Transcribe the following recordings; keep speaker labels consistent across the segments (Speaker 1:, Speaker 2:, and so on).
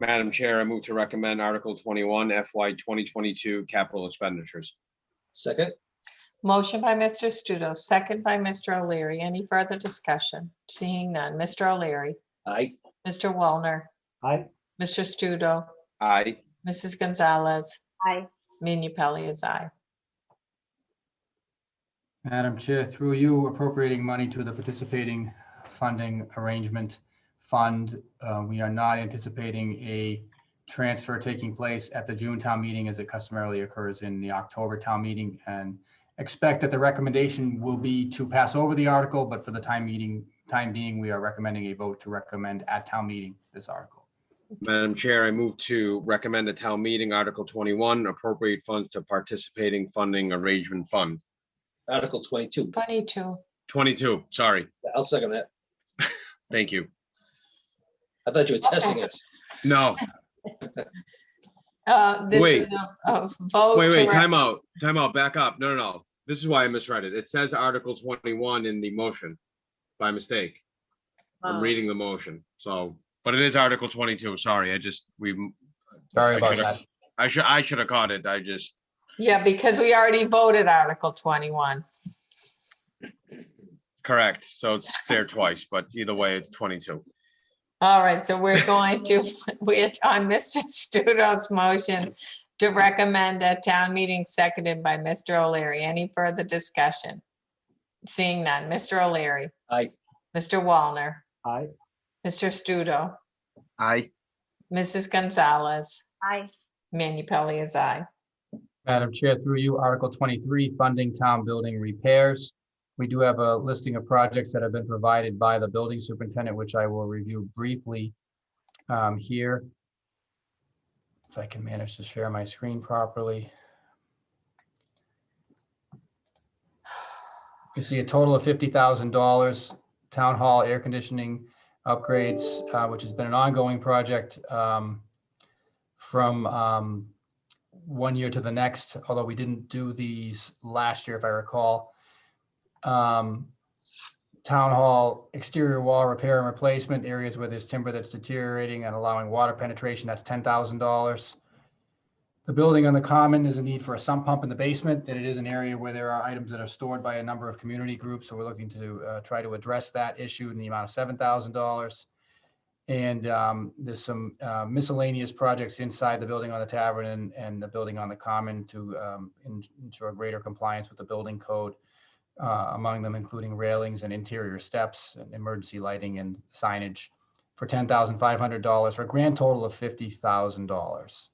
Speaker 1: Madam Chair, I move to recommend Article 21 FY 2022 capital expenditures.
Speaker 2: Second?
Speaker 3: Motion by Mr. Studo, second by Mr. O'Leary. Any further discussion? Seeing none. Mr. O'Leary,
Speaker 2: Aye.
Speaker 3: Mr. Wallner,
Speaker 4: aye,
Speaker 3: Mr. Studo,
Speaker 1: Aye.
Speaker 3: Mrs. Gonzalez,
Speaker 5: aye,
Speaker 3: Manu Pelley is aye.
Speaker 6: Madam Chair, through you appropriating money to the participating funding arrangement fund. Uh, We are not anticipating a transfer taking place at the June town meeting as it customarily occurs in the October town meeting. And expect that the recommendation will be to pass over the article, but for the time meeting, time being, we are recommending a vote to recommend at town meeting this article.
Speaker 1: Madam Chair, I move to recommend a town meeting Article 21 appropriate funds to participating funding arrangement fund.
Speaker 2: Article twenty-two.
Speaker 3: Twenty-two.
Speaker 1: 22, sorry.
Speaker 2: I'll second that.
Speaker 1: Thank you.
Speaker 2: I thought you were testing us.
Speaker 1: No,
Speaker 3: Uh, this
Speaker 1: Wait.
Speaker 3: is a, a vote.
Speaker 1: wait,
Speaker 3: to
Speaker 1: wait,
Speaker 3: rec-
Speaker 1: time out, time out, back up. No, no, no. This is why I misread it. It says Article 21 in the motion by mistake. I'm
Speaker 5: Oh.
Speaker 1: reading the motion, so, but it is Article 22, sorry, I just, we.
Speaker 6: Sorry
Speaker 1: I
Speaker 6: about
Speaker 1: should've-
Speaker 6: that.
Speaker 1: I should, I should have caught it. I just,
Speaker 3: Yeah, because we already voted Article twenty-one.
Speaker 1: correct. So it's there twice, but either way, it's 22.
Speaker 3: All right, so we're going to, we're on Mr. Studo's motion to recommend a town meeting seconded by Mr. O'Leary. Any further discussion? Seeing none. Mr. O'Leary,
Speaker 2: Aye.
Speaker 3: Mr. Wallner,
Speaker 4: aye,
Speaker 3: Mr. Studo,
Speaker 1: Aye.
Speaker 3: Mrs. Gonzalez,
Speaker 5: aye,
Speaker 3: Manu Pelley is aye.
Speaker 6: Madam Chair, through you, Article 23, funding town building repairs. We do have a listing of projects that have been provided by the building superintendent, which I will review briefly um, here. If I can manage to share my screen properly. You see a total of $50,000, town hall air conditioning upgrades, uh, which has been an ongoing project um, from um, one year to the next, although we didn't do these last year, if I recall. Um, Town hall exterior wall repair and replacement areas where there's timber that's deteriorating and allowing water penetration, that's ten thousand dollars. The building on the common is a need for a sump pump in the basement, and it is an area where there are items that are stored by a number of community groups, so we're looking to uh, try to address that issue in the amount of seven thousand dollars. And um, there's some uh, miscellaneous projects inside the building on the tavern and, and the building on the common to um, en- ensure greater compliance with the building code. uh, Among them including railings and interior steps and emergency lighting and signage for ten thousand five hundred dollars for a grand total of fifty thousand dollars.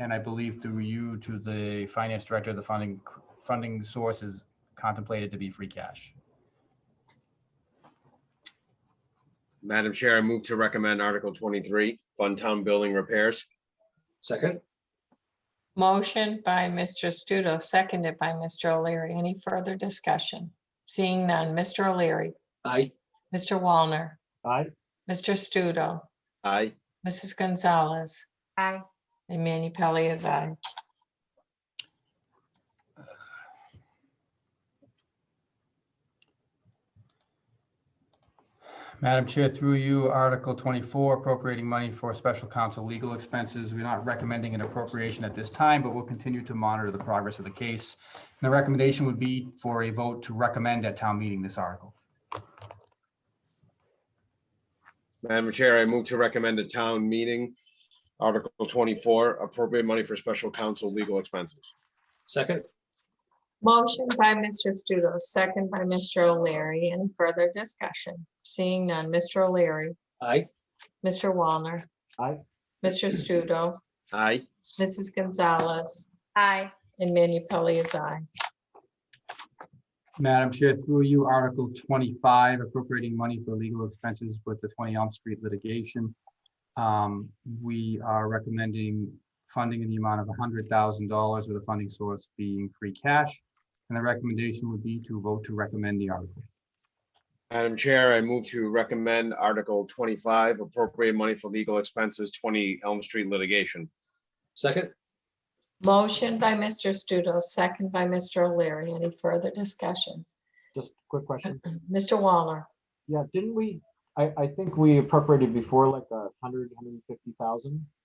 Speaker 6: And I believe through you to the finance director, the funding, funding source is contemplated to be free cash.
Speaker 1: Madam Chair, I move to recommend Article 23, fund town building repairs.
Speaker 2: Second?
Speaker 3: Motion by Mr. Studo, seconded by Mr. O'Leary. Any further discussion? Seeing none. Mr. O'Leary,
Speaker 2: Aye.
Speaker 3: Mr. Wallner,
Speaker 4: aye,
Speaker 3: Mr. Studo,
Speaker 1: Aye.
Speaker 3: Mrs. Gonzalez,
Speaker 5: aye,
Speaker 3: and Manu Pelley is aye.
Speaker 6: Madam Chair, through you, Article 24, appropriating money for special counsel legal expenses. We're not recommending an appropriation at this time, but we'll continue to monitor the progress of the case. And The recommendation would be for a vote to recommend at town meeting this article.
Speaker 1: Madam Chair, I move to recommend a town meeting, Article 24, appropriate money for special counsel legal expenses.
Speaker 2: Second?
Speaker 3: Motion by Mr. Studo, second by Mr. O'Leary. Any further discussion? Seeing none. Mr. O'Leary,
Speaker 2: Aye.
Speaker 3: Mr. Wallner,
Speaker 4: aye,
Speaker 3: Mr. Studo,
Speaker 1: Aye.
Speaker 3: Mrs. Gonzalez,
Speaker 5: aye,
Speaker 3: and Manu Pelley is aye.
Speaker 6: Madam Chair, through you, Article 25, appropriating money for legal expenses with the 20 Elm Street litigation. Um, We are recommending funding in the amount of $100,000 with the funding source being free cash. And the recommendation would be to vote to recommend the article.
Speaker 1: Madam Chair, I move to recommend Article 25, appropriate money for legal expenses, 20 Elm Street litigation.
Speaker 2: Second?
Speaker 3: Motion by Mr. Studo, second by Mr. O'Leary. Any further discussion?
Speaker 4: just a quick question.
Speaker 3: Mr. Wallner,
Speaker 4: Yeah, didn't we I, I think we appropriated before like a hundred, hundred and fifty thousand.